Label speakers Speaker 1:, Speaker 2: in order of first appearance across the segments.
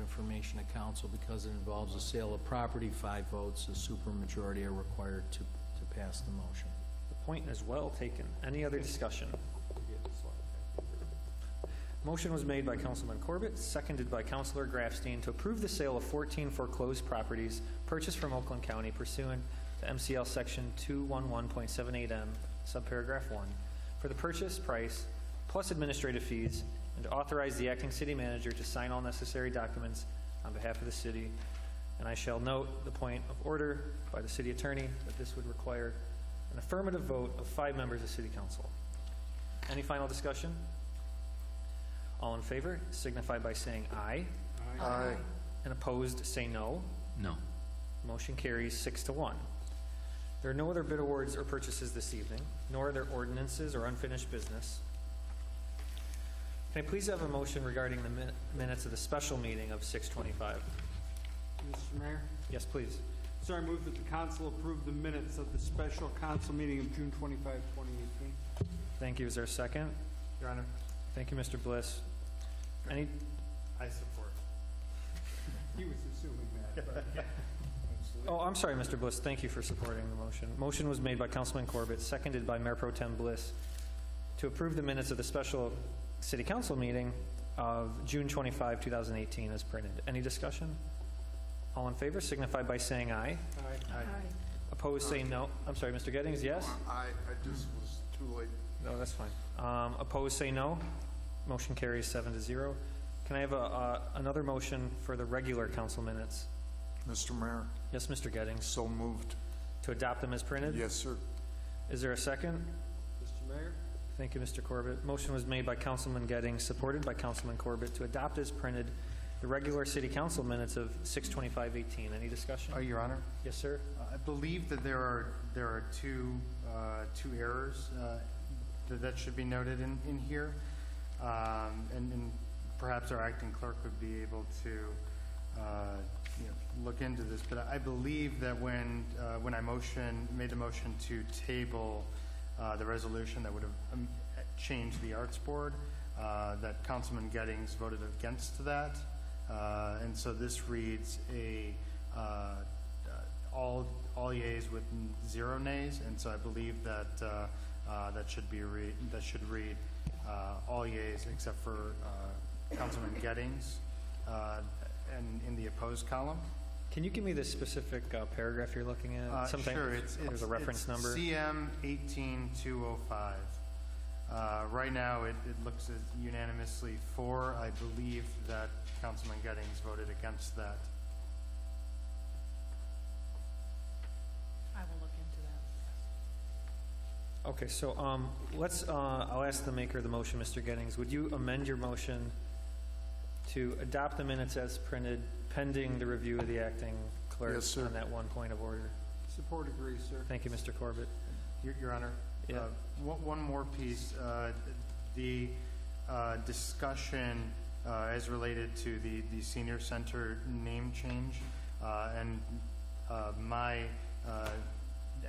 Speaker 1: information to council because it involves a sale of property. Five votes, a supermajority are required to, to pass the motion.
Speaker 2: The point is well taken. Any other discussion? Motion was made by Councilman Corbett, seconded by Councilor Grafstein to approve the sale of 14 foreclosed properties purchased from Oakland County pursuant to MCL Section 211.78M, subparagraph 1, for the purchase price plus administrative fees, and to authorize the acting city manager to sign all necessary documents on behalf of the city. And I shall note the point of order by the city attorney that this would require an affirmative vote of five members of city council. Any final discussion? All in favor signify by saying aye,
Speaker 3: Aye.
Speaker 2: and opposed, say no.
Speaker 4: No.
Speaker 2: Motion carries six to one. There are no other bid awards or purchases this evening, nor are there ordinances or unfinished business. Can I please have a motion regarding the min- minutes of the special meeting of 6:25?
Speaker 3: Mr. Mayor?
Speaker 2: Yes, please.
Speaker 3: Sir, I move that the council approve the minutes of the special council meeting of June 25, 2018.
Speaker 2: Thank you. Is there a second?
Speaker 5: Your Honor,
Speaker 2: Thank you, Mr. Bliss. Any,
Speaker 5: I support.
Speaker 3: He was assuming that. but-
Speaker 2: Oh, I'm sorry, Mr. Bliss, thank you for supporting the motion. Motion was made by Councilman Corbett, seconded by Mayor Pro Tem Bliss, to approve the minutes of the special city council meeting of June 25, 2018, as printed. Any discussion? All in favor signify by saying aye.
Speaker 3: Aye.
Speaker 2: Opposed, say no. I'm sorry, Mr. Gettings, yes?
Speaker 6: I, I just was too late.
Speaker 2: No, that's fine. Um, Opposed, say no. Motion carries seven to zero. Can I have a, uh, another motion for the regular council minutes?
Speaker 6: Mr. Mayor,
Speaker 2: Yes, Mr. Gettings,
Speaker 6: so moved.
Speaker 2: to adopt them as printed?
Speaker 6: Yes, sir.
Speaker 2: Is there a second?
Speaker 3: Mr. Mayor?
Speaker 2: Thank you, Mr. Corbett. Motion was made by Councilman Gettings, supported by Councilman Corbett, to adopt as printed the regular city council minutes of 6:25:18. Any discussion?
Speaker 5: Uh, Your Honor,
Speaker 2: Yes, sir?
Speaker 5: I believe that there are, there are two, uh, two errors uh, that that should be noted in, in here. Um, And and perhaps our acting clerk would be able to, uh, you know, look into this. But I believe that when, uh, when I motion, made the motion to table uh, the resolution that would have um, changed the Arts Board, uh, that Councilman Gettings voted against that. Uh, And so this reads a, uh, uh, all, all yeas with n- zero nays, and so I believe that, uh, uh, that should be read, that should read, uh, all yeas except for, uh, Councilman Gettings, uh, and in the opposed column.
Speaker 2: Can you give me the specific uh, paragraph you're looking
Speaker 5: Uh,
Speaker 2: at? Sometimes
Speaker 5: sure, it's-
Speaker 2: There's
Speaker 5: it's-
Speaker 2: a reference
Speaker 5: it's
Speaker 2: number.
Speaker 5: CM 18205. Uh, Right now, it, it looks as unanimously for. I believe that Councilman Gettings voted against that.
Speaker 7: I will look into that.
Speaker 2: Okay, so um, let's, uh, I'll ask the maker of the motion, Mr. Gettings, would you amend your motion to adopt the minutes as printed pending the review of the acting clerk?
Speaker 6: Yes, sir.
Speaker 2: On that one point of order?
Speaker 3: Support agrees, sir.
Speaker 2: Thank you, Mr. Corbett.
Speaker 5: Your Your Honor?
Speaker 2: Yeah.
Speaker 5: uh, One one more piece. uh, The uh, discussion uh, as related to the the senior center name change uh, and uh, my uh,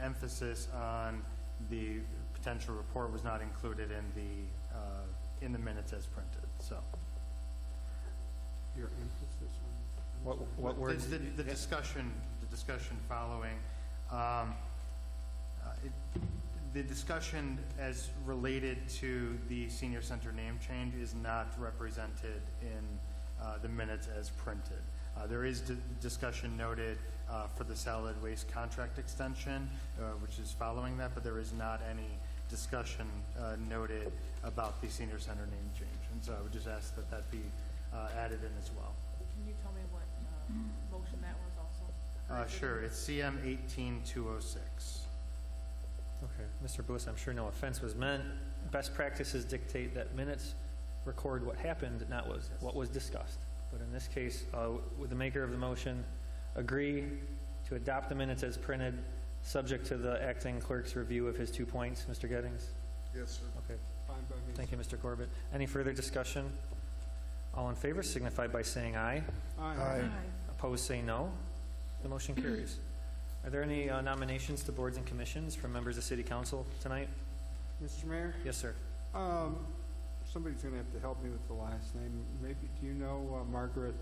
Speaker 5: emphasis on the potential report was not included in the, uh, in the minutes as printed, so.
Speaker 3: Your emphasis on...
Speaker 2: What what
Speaker 5: The-
Speaker 2: words?
Speaker 5: The, the discussion, the discussion following, um, uh, it- the discussion as related to the senior center name change is not represented in uh, the minutes as printed. Uh, There is di- discussion noted uh, for the solid waste contract extension, uh, which is following that, but there is not any discussion uh, noted about the senior center name change. And so I would just ask that that be uh, added in as well.
Speaker 7: Can you tell me what uh, motion that was also?
Speaker 5: Uh, sure, it's CM eighteen two oh six.
Speaker 2: Okay, Mr. Bliss, I'm sure no offense was meant. Best practices dictate that minutes record what happened, not what was, what was discussed. But in this case, uh, would the maker of the motion agree to adopt the minutes as printed, subject to the acting clerk's review of his two points, Mr. Gettings?
Speaker 6: Yes, sir.
Speaker 2: Okay,
Speaker 3: Fine by me.
Speaker 2: thank you, Mr. Corbett. Any further discussion? All in favor signify by saying aye.
Speaker 3: Aye.
Speaker 2: Opposed, say no. The motion carries. Are there any uh, nominations to boards and commissions from members of city council tonight?
Speaker 3: Mr. Mayor?
Speaker 2: Yes, sir.
Speaker 3: Um, Somebody's going to have to help me with the last name. Maybe, do you know uh, Margaret